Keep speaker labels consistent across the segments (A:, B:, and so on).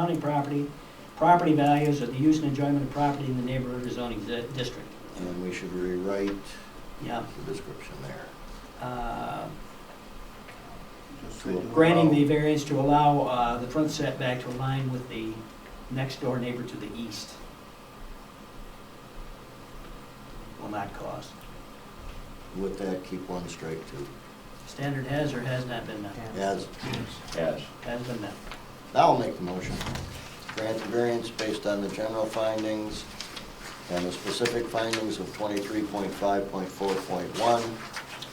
A: surrounding property, property values, or the use and enjoyment of property in the neighborhood or zoning di- district.
B: And we should rewrite
A: Yeah.
B: the description there.
A: uh,
C: Just
B: To
C: to
A: Granting the
C: allow-
A: variance to allow uh, the front setback to align with the next door neighbor to the east. Will not cause.
B: With that, keep one strike to
A: Standard has or has not been met?
B: as.
D: Yes.
A: Has been met.
B: I'll make the motion. Grant the variance based on the general findings and the specific findings of twenty-three point five point four point one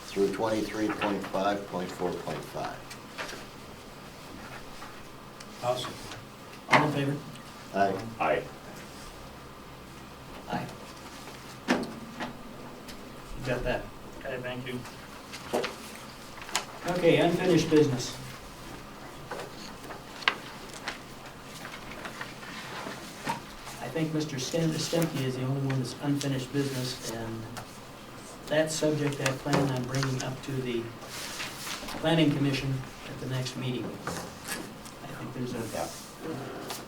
B: through twenty-three point five point four point five.
C: Awesome.
A: All in favor?
B: I,
D: Aye.
A: Aye. You got that?
E: Okay, thank you.
A: Okay, unfinished business. I think Mr. Stem- Stemke is the only one that's unfinished business, and that subject I plan on bringing up to the planning commission at the next meeting. I think there's a,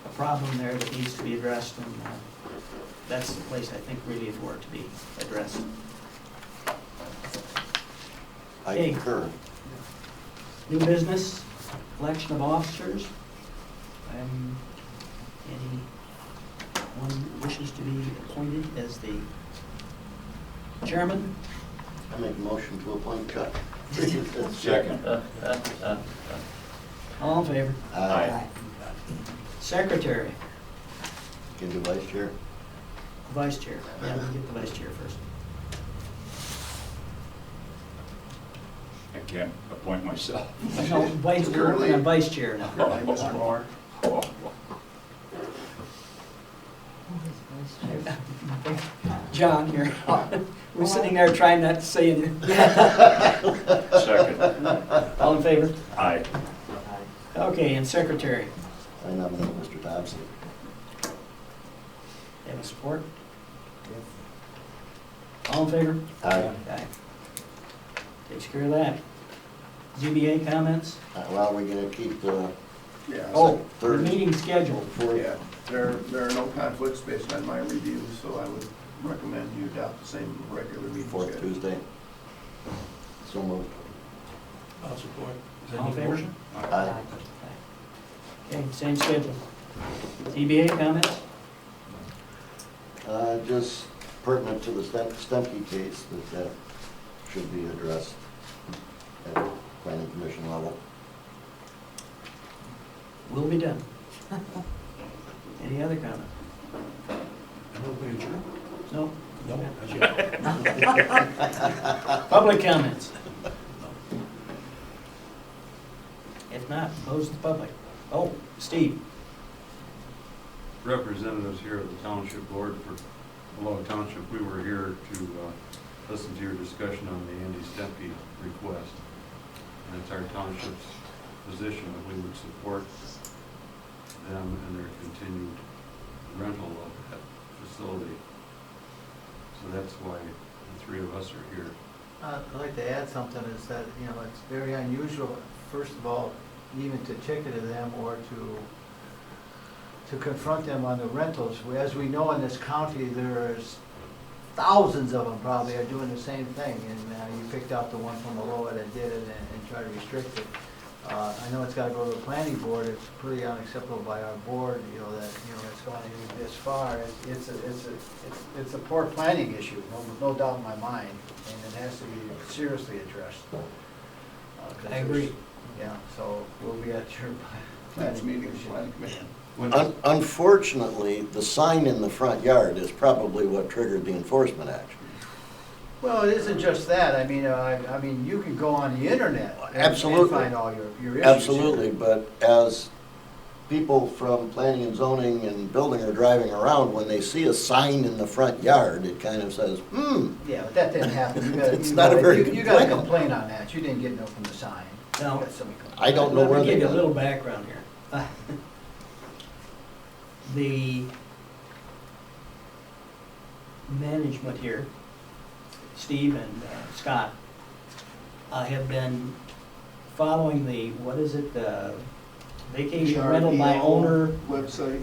A: a problem there that needs to be addressed, and uh, that's the place I think really for it to be addressed.
B: I
A: Okay.
B: concur.
A: New business, election of officers. Um, Anyone wishes to be appointed as the chairman?
B: I make a motion to appoint Chuck.
D: Second.
A: All in favor?
B: Aye.
A: Secretary,
B: Can do vice chair.
A: vice chair. Yeah, we'll get the vice chair first.
D: I can't appoint myself.
A: No, vice, we're working on vice chair now.
C: Mr. Moore.
A: John here. We're sitting there trying not to say anything.
D: Second.
A: All in favor?
D: Aye.
A: Okay, and secretary,
B: I nominate Mr. Thompson.
A: have a support? All in favor?
B: Aye.
A: Okay. Takes care of that. ZBA comments?
B: Uh, Well, we're gonna keep the
C: Yeah.
A: Oh, the
B: Thursday.
A: meeting scheduled.
B: fourth,
C: Yeah, there, there are no conflicts based on my review, so I would recommend you adopt the same regular meeting
B: fourth
C: schedule.
B: Tuesday. So moved.
C: I'll support.
A: All in favor?
B: Aye.
A: Okay, same schedule. ZBA comments?
B: Uh, Just pertinent to the Stem- Stemke case, that that should be addressed at the planning commission level.
A: Will be done. Any other comment? No? Public comments? If not, close the public. Oh, Steve?
F: representatives here of the township board for Below Township, we were here to uh, listen to your discussion on the Andy Stempy request. And it's our township's position that we would support them and their continued rental of that facility. So that's why the three of us are here.
G: Uh, I'd like to add something, is that, you know, it's very unusual, first of all, even to ticket to them or to, to confront them on the rentals. We- As we know in this county, there's thousands of them probably are doing the same thing, and uh, you picked out the one from Aloha that did it and and tried to restrict it. Uh, I know it's gotta go to the planning board, it's pretty unacceptable by our board, you know, that, you know, it's gone even this far. It's- It's, a- it's, a- it's, it's a poor planning issue, no, no doubt in my mind, and it has to be seriously addressed. Uh, 'cause
A: I agree.
G: there's- Yeah, so we'll be at your.
C: Next meeting, planning commission.
F: When-
B: Un- Unfortunately, the sign in the front yard is probably what triggered the enforcement action.
G: Well, it isn't just that, I mean, uh, I, I mean, you can go on the internet and- and
B: Absolutely.
G: find all your, your issues.
B: Absolutely, but as people from planning and zoning and building are driving around, when they see a sign in the front yard, it kind of says, hmm,
G: Yeah, but that didn't happen. You gotta-
B: It's
G: you
B: not a
G: gotta-
B: very
G: you-
B: good
G: You got a
B: plan.
G: complaint on that, you didn't get no from the sign.
A: No.
G: You got some complaint.
B: I don't know where
A: Let
B: they
A: me give
B: got
A: you a
B: it.
A: little background here. The management here, Steve and uh, Scott, uh, have been following the, what is it, the vacation rental by owner.
C: Website.